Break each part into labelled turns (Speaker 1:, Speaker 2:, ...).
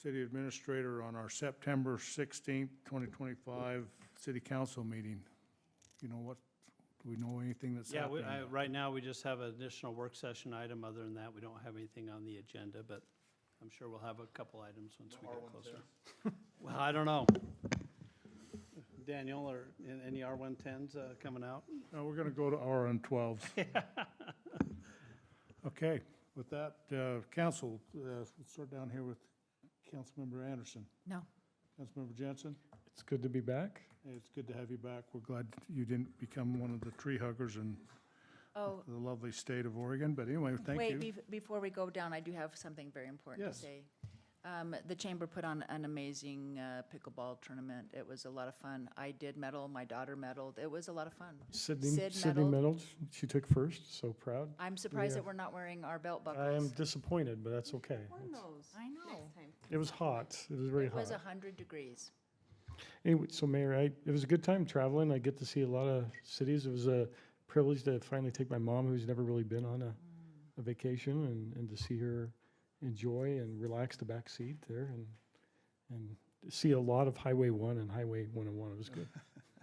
Speaker 1: city administrator on our September sixteenth, twenty twenty-five city council meeting. You know what, do we know anything that's
Speaker 2: Yeah, we,
Speaker 1: happening?
Speaker 2: I, right now, we just have an additional work session item. Other than that, we don't have anything on the agenda, but I'm sure we'll have a couple items once we get closer. Well, I don't know. Daniel, are an- any R one tens, uh, coming out?
Speaker 1: No, we're gonna go to R on twelves. Okay, with that, uh, council, uh, we'll start down here with Councilmember Anderson.
Speaker 3: No.
Speaker 1: Councilmember Jensen,
Speaker 4: It's good to be back.
Speaker 1: it's good to have you back. We're glad you didn't become one of the tree huggers in
Speaker 3: Oh,
Speaker 1: the lovely state of Oregon, but anyway, thank you.
Speaker 3: wait, bef- before we go down, I do have something very important to
Speaker 1: Yes.
Speaker 3: say. Um, The chamber put on an amazing uh, pickleball tournament. It was a lot of fun. I did medal, my daughter medaled. It was a lot of fun.
Speaker 4: Sydney,
Speaker 3: Sid
Speaker 4: Sydney
Speaker 3: medaled.
Speaker 4: medaled. She took first, so proud.
Speaker 3: I'm surprised that
Speaker 4: Yeah.
Speaker 3: we're not wearing our belt
Speaker 4: I am
Speaker 3: buckles.
Speaker 4: disappointed, but that's okay.
Speaker 5: Warn those
Speaker 3: I know.
Speaker 5: next time.
Speaker 4: It was hot. It was very
Speaker 3: It was
Speaker 4: hot.
Speaker 3: 100 degrees.
Speaker 4: Anyway, so Mayor, I, it was a good time traveling. I get to see a lot of cities. It was a privilege to finally take my mom, who's never really been on a, a vacation, and, and to see her enjoy and relax the back seat there and, and see a lot of Highway One and Highway One and One. It was good.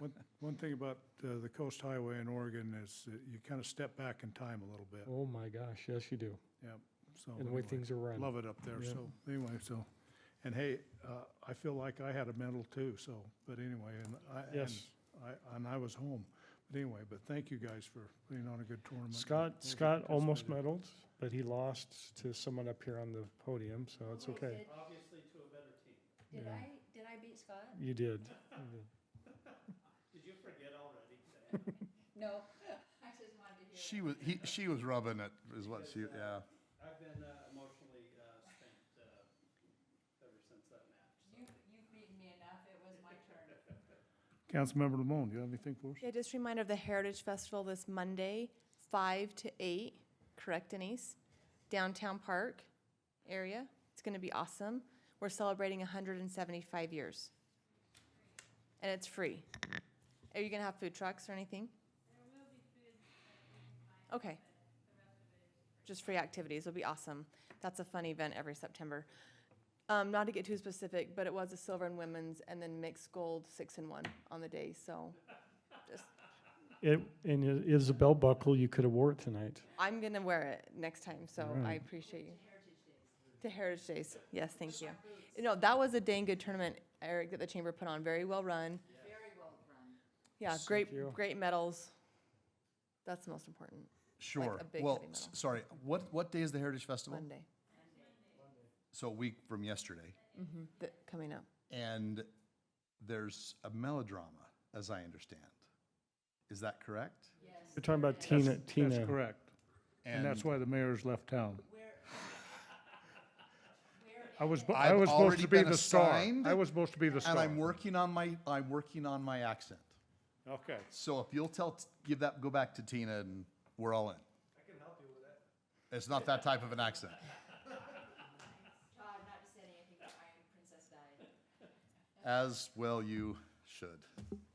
Speaker 1: One, one thing about uh, the Coast Highway in Oregon is that you kind of step back in time a little bit,
Speaker 4: Oh my gosh, yes, you do.
Speaker 1: so.
Speaker 4: And the way
Speaker 1: anyway,
Speaker 4: things are run.
Speaker 1: Love it up there,
Speaker 4: Yeah.
Speaker 1: so, anyway, so, and hey, uh, I feel like I had a medal too, so, but anyway, and I, and
Speaker 4: Yes.
Speaker 1: I, and I was home. But anyway, but thank you guys for putting on a good tournament.
Speaker 4: Scott,
Speaker 1: Those that
Speaker 4: Scott almost
Speaker 1: participated.
Speaker 4: medaled, but he lost to someone up here on the podium, so it's
Speaker 1: Oh,
Speaker 4: okay.
Speaker 2: Obviously to a better team.
Speaker 4: Did Yeah.
Speaker 3: did I beat Scott?
Speaker 4: You did.
Speaker 2: Did you forget already?
Speaker 3: No. I just wanted to hear.
Speaker 6: She was, he, she was rubbing it, is what she, yeah.
Speaker 2: uh, I've been emotionally, uh, spent, uh, ever since that match.
Speaker 3: You've beaten me enough. It was my turn.
Speaker 1: Councilmember Lamone, do you have anything for us?
Speaker 7: Yeah, just a reminder of the Heritage Festival this Monday, five to eight, correct Denise? Downtown Park area. It's gonna be awesome. We're celebrating hundred and seventy-five years. And it's free. Are you gonna have food trucks or anything? Okay. Just free activities. It'll be awesome. That's a fun event every September. Um, not to get too specific, but it was a silver and women's and then mixed gold, six and one on the day, so just
Speaker 4: It, and it is a belt buckle. You could have wore it tonight.
Speaker 7: I'm gonna wear it next time, so I
Speaker 4: Alright.
Speaker 7: appreciate you. To Heritage Days, yes, thank you. No, that was a dang good tournament, Eric, that the chamber put on, very well run.
Speaker 3: Very well run.
Speaker 7: Yeah,
Speaker 4: Thank
Speaker 7: great,
Speaker 4: you.
Speaker 7: great medals. That's most important,
Speaker 6: Sure.
Speaker 7: a big
Speaker 6: Well,
Speaker 7: heavy
Speaker 6: s-
Speaker 7: metal.
Speaker 6: sorry, what, what day is the Heritage Festival?
Speaker 7: Monday,
Speaker 6: So a week from yesterday.
Speaker 7: that, coming up.
Speaker 6: And there's a melodrama, as I understand. Is that correct?
Speaker 4: You're talking about Tina, Tina.
Speaker 1: That's correct, and that's why the mayor's left town. I was, bu- I
Speaker 6: I've
Speaker 1: was supposed
Speaker 6: already
Speaker 1: to be
Speaker 6: been
Speaker 1: the star.
Speaker 6: assigned,
Speaker 1: I was supposed to be the star.
Speaker 6: And I'm working on my, I'm working on my accent.
Speaker 1: Okay.
Speaker 6: So if you'll tell, give that, go back to Tina and we're all in. I can help you with that. It's not that type of an accent.
Speaker 3: Todd, not to say anything, but I am Princess Di.
Speaker 6: As well you should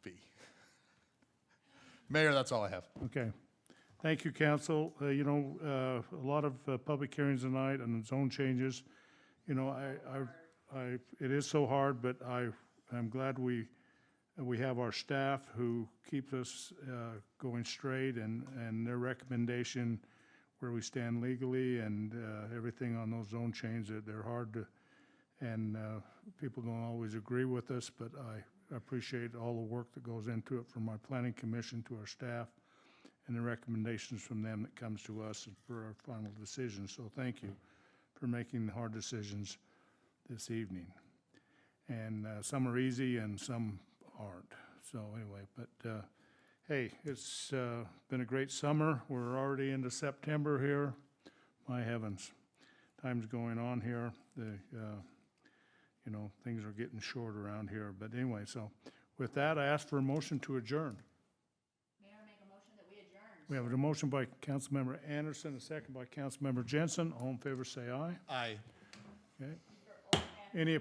Speaker 6: be. Mayor, that's all I have.
Speaker 1: Okay. Thank you, council. Uh, You know, uh, a lot of uh, public hearings tonight and zone changes. You know, I, I, I, it is so hard, but I, I'm glad we, we have our staff who keeps us uh, going straight and, and their recommendation where we stand legally and uh, everything on those zone changes. They're- They're hard to, and uh, people don't always agree with us, but I appreciate all the work that goes into it from our planning commission to our staff and the recommendations from them that comes to us for our final decision. So thank you for making the hard decisions this evening. And uh, some are easy and some aren't. So anyway, but uh, hey, it's uh, been a great summer. We're already into September here. My heavens, time's going on here. The, uh, you know, things are getting short around here. But anyway, so with that, I ask for a motion to adjourn.
Speaker 3: Mayor, make a motion that we adjourn.
Speaker 1: We have a motion by Councilmember Anderson, a second by Councilmember Jensen. All in favor, say aye.
Speaker 6: Aye.
Speaker 1: Okay. Any